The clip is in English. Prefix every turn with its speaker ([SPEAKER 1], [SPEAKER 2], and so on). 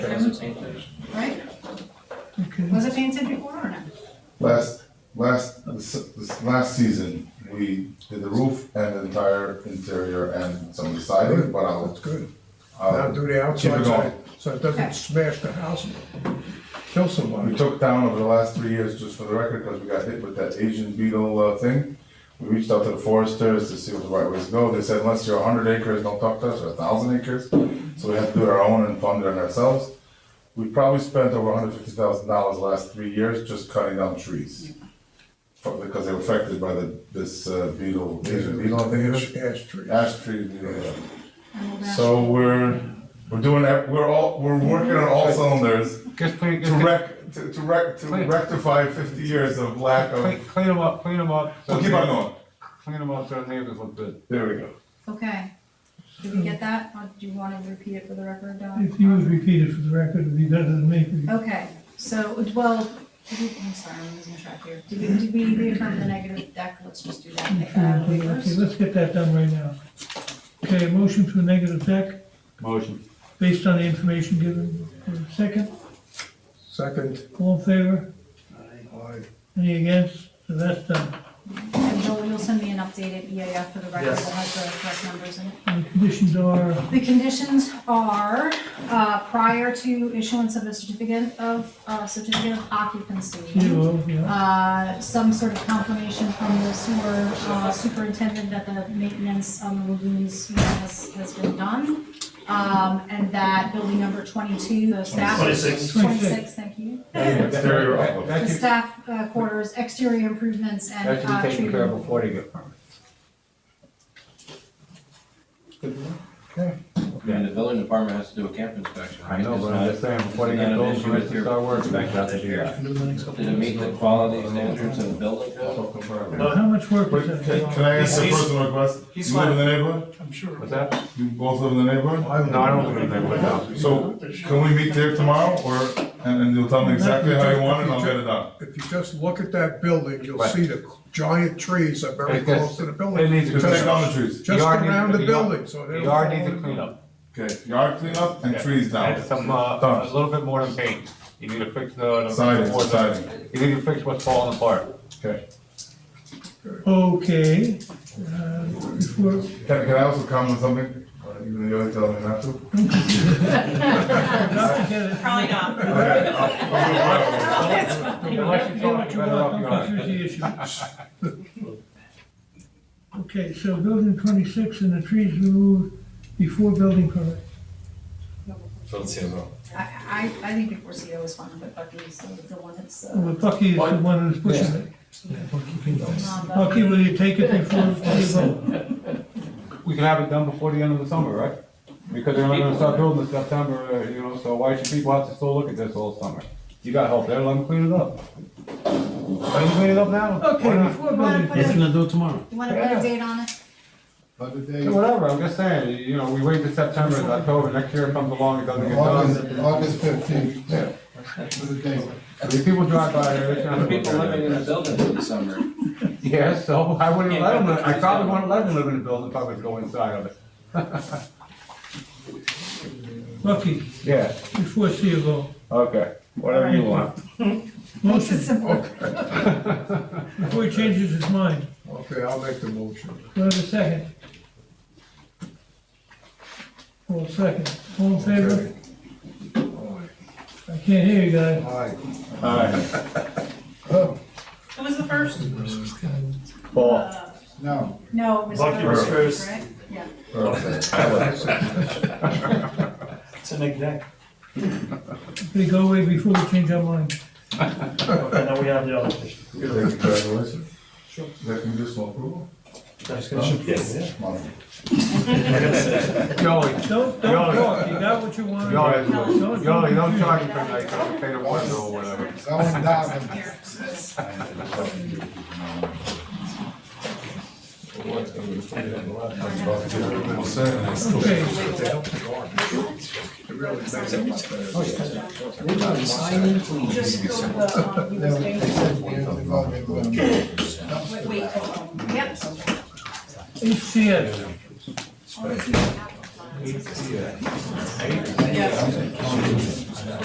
[SPEAKER 1] right?
[SPEAKER 2] Okay.
[SPEAKER 1] Was it painted before or not?
[SPEAKER 3] Last, last, this, this last season, we did the roof and the entire interior and some of the siding, but I'll,
[SPEAKER 2] That's good. Now
[SPEAKER 3] I'll,
[SPEAKER 2] do the
[SPEAKER 3] Uh, keep
[SPEAKER 2] outside
[SPEAKER 3] it
[SPEAKER 2] side,
[SPEAKER 3] going.
[SPEAKER 2] so it doesn't smash the house, and kill
[SPEAKER 3] We
[SPEAKER 2] somebody.
[SPEAKER 3] took down over the last three years, just for the record, because we got hit with that Asian beetle uh, thing. We reached out to the foresters to see what the right ways to go. They said unless you're hundred acres, don't talk to us, or thousand acres. So we had to do it our own and fund it ourselves. We probably spent over hundred fifty thousand dollars the last three years just cutting down trees. For- Because they were affected by the, this uh, beetle, Asian beetle, I think it is.
[SPEAKER 2] Ash tree.
[SPEAKER 3] Ash tree beetle. yeah.
[SPEAKER 1] I will bash-
[SPEAKER 3] So we're, we're doing, that- we're all, we're working on all cylinders
[SPEAKER 4] Just clean,
[SPEAKER 3] to
[SPEAKER 4] just clean,
[SPEAKER 3] rec, to, to rec, to
[SPEAKER 4] Clean.
[SPEAKER 3] rectify fifty years of lack
[SPEAKER 4] clean,
[SPEAKER 3] of.
[SPEAKER 4] them up, clean them up. so
[SPEAKER 3] So keep on
[SPEAKER 4] they-
[SPEAKER 3] going.
[SPEAKER 4] Clean them up so they just look good.
[SPEAKER 3] There we go.
[SPEAKER 1] Okay, did we get that? Or do you want to repeat it for the record, Don?
[SPEAKER 5] If you would repeat it for the record, it'd be better than me.
[SPEAKER 1] Okay, so, well, did we- I'm sorry, I'm losing track here. Did we, did we reaffirm the negative deck? Let's just do that. Uh,
[SPEAKER 5] Okay,
[SPEAKER 1] waivers?
[SPEAKER 5] let's get that done right now. Okay, a motion for negative deck
[SPEAKER 4] Motion.
[SPEAKER 5] based on the information given. Second,
[SPEAKER 2] Second, uh,
[SPEAKER 5] all in favor?
[SPEAKER 2] aye.
[SPEAKER 5] Any against? So that's done.
[SPEAKER 1] And Bill, you'll send me an updated EAF for the record that has the correct numbers in it.
[SPEAKER 5] And the conditions are,
[SPEAKER 1] The conditions are, uh, prior to issuance of a certificate of, uh, certificate of occupancy,
[SPEAKER 5] zero, yeah,
[SPEAKER 1] uh, some sort of confirmation from the sewer uh, superintendent that the maintenance on the lagoons you know, has, has been done. Um, and that building number twenty-two, the staff.
[SPEAKER 6] Twenty-six.
[SPEAKER 1] Twenty-six, thank you.
[SPEAKER 3] Exterior
[SPEAKER 4] That-
[SPEAKER 3] outlook.
[SPEAKER 4] that
[SPEAKER 1] The
[SPEAKER 4] could-
[SPEAKER 1] staff uh, quarters, exterior improvements and,
[SPEAKER 4] That should
[SPEAKER 1] uh,
[SPEAKER 4] be taken care of
[SPEAKER 1] treatment.
[SPEAKER 4] before they get permits.
[SPEAKER 7] And the building department has to do a camp inspection, right?
[SPEAKER 4] I know, but I'm just saying, before they
[SPEAKER 7] Is that
[SPEAKER 4] get
[SPEAKER 7] an
[SPEAKER 4] those
[SPEAKER 7] issue
[SPEAKER 4] permits
[SPEAKER 7] with
[SPEAKER 4] to
[SPEAKER 7] your-
[SPEAKER 4] start working, they have to do that.
[SPEAKER 7] Did it meet the quality standards of the building code?
[SPEAKER 3] Talking about-
[SPEAKER 6] No.
[SPEAKER 5] how much work
[SPEAKER 3] Wait,
[SPEAKER 5] is
[SPEAKER 3] can,
[SPEAKER 5] that?
[SPEAKER 3] can I ask a
[SPEAKER 6] He's-
[SPEAKER 3] personal request?
[SPEAKER 6] he's
[SPEAKER 3] You live in
[SPEAKER 6] fine.
[SPEAKER 3] the neighborhood?
[SPEAKER 6] I'm sure.
[SPEAKER 4] What's that?
[SPEAKER 3] You both live in the neighborhood?
[SPEAKER 2] I
[SPEAKER 4] No, I don't live in that way now.
[SPEAKER 3] So can we meet there tomorrow or, and, and you'll tell me exactly how you want it and I'll get it done?
[SPEAKER 2] If you just look at that building, you'll
[SPEAKER 4] Right.
[SPEAKER 2] see the giant trees are very
[SPEAKER 4] It gets-
[SPEAKER 2] close to the
[SPEAKER 4] It
[SPEAKER 2] building.
[SPEAKER 4] needs to
[SPEAKER 3] Just take down the trees.
[SPEAKER 2] Just
[SPEAKER 4] Yard needs-
[SPEAKER 2] around the
[SPEAKER 4] yard-
[SPEAKER 2] building, so
[SPEAKER 4] The
[SPEAKER 2] they
[SPEAKER 4] yard needs a cleanup.
[SPEAKER 3] Okay, yard cleanup and trees down.
[SPEAKER 4] Add some, uh, a
[SPEAKER 3] Done.
[SPEAKER 4] little bit more than paint. You need to fix the. the-
[SPEAKER 3] Siding,
[SPEAKER 4] the-
[SPEAKER 3] siding.
[SPEAKER 4] You need to fix what's falling apart.
[SPEAKER 3] Okay.
[SPEAKER 5] Okay, uh, before,
[SPEAKER 3] Can, can I also comment something? Or Even though you're telling me not to?
[SPEAKER 5] not to get it.
[SPEAKER 8] Probably not.
[SPEAKER 3] Okay, I'll- I'll do it right away.
[SPEAKER 4] Unless you
[SPEAKER 5] Get what
[SPEAKER 4] talk
[SPEAKER 5] you
[SPEAKER 4] better off
[SPEAKER 5] want,
[SPEAKER 4] your
[SPEAKER 5] don't
[SPEAKER 4] own.
[SPEAKER 5] confuse the issue. Okay, so building twenty-six and the trees removed before building permit.
[SPEAKER 1] I, I, I think before CO is fine, but Bucky's the the one that's, uh,
[SPEAKER 5] Well, Bucky is the one who's pushing it.
[SPEAKER 1] non-Bucky.
[SPEAKER 5] Bucky, will you take it before you vote?
[SPEAKER 4] We can have it done before the end of the summer, right? Because they're not gonna start building in September, uh, you know, so why should people have to still look at this all summer? You got help there, let them clean it up. Let them clean it up now. Why
[SPEAKER 5] Okay,
[SPEAKER 4] not?
[SPEAKER 5] before
[SPEAKER 1] You wanna
[SPEAKER 5] building.
[SPEAKER 1] put a,
[SPEAKER 5] do it tomorrow.
[SPEAKER 1] you wanna put a date on it?
[SPEAKER 4] Whatever, I'm just saying, you- you know, we wait till September, it's October, next year comes along, it doesn't get done.
[SPEAKER 3] August fifteenth, yeah.
[SPEAKER 4] These people drive by there, it's
[SPEAKER 7] There
[SPEAKER 4] not.
[SPEAKER 7] are people living in the building in the summer.
[SPEAKER 4] Yeah, so I wouldn't let them, I probably wouldn't let them live in the building if I was going inside of it.
[SPEAKER 5] Bucky,
[SPEAKER 4] Yeah,
[SPEAKER 5] before you vote.
[SPEAKER 4] okay, whatever you want.
[SPEAKER 1] Makes it
[SPEAKER 5] Motion,
[SPEAKER 1] simple.
[SPEAKER 5] before he changes his mind.
[SPEAKER 2] Okay, I'll make the motion.
[SPEAKER 5] Do I have a second? Hold a second. All in favor?
[SPEAKER 2] Okay. Aye.
[SPEAKER 5] I can't hear you guys.
[SPEAKER 2] Aye.
[SPEAKER 8] Who was the first?
[SPEAKER 4] Paul,
[SPEAKER 8] Uh,
[SPEAKER 1] No, it was.
[SPEAKER 6] Bucky was first.
[SPEAKER 1] Right? Yeah.
[SPEAKER 6] It's a neck deck.
[SPEAKER 5] We go away before we change our mind.
[SPEAKER 6] Okay, now we have the other question.
[SPEAKER 3] Congratulations. Sure. Is that conditional approval?
[SPEAKER 6] Yes.
[SPEAKER 3] Wonderful.
[SPEAKER 4] Joey,
[SPEAKER 5] Don't, don't
[SPEAKER 4] Yoli.
[SPEAKER 5] talk, you got what you wanted.
[SPEAKER 4] Yoli,
[SPEAKER 5] Don't-
[SPEAKER 4] Yoli, don't charge me for night, I'll pay the water bill or whatever.
[SPEAKER 1] Here.
[SPEAKER 5] Okay,
[SPEAKER 8] Just go to the, um, US Wait, wait, hold on.
[SPEAKER 1] Yep.
[SPEAKER 5] HCS,
[SPEAKER 1] Yeah.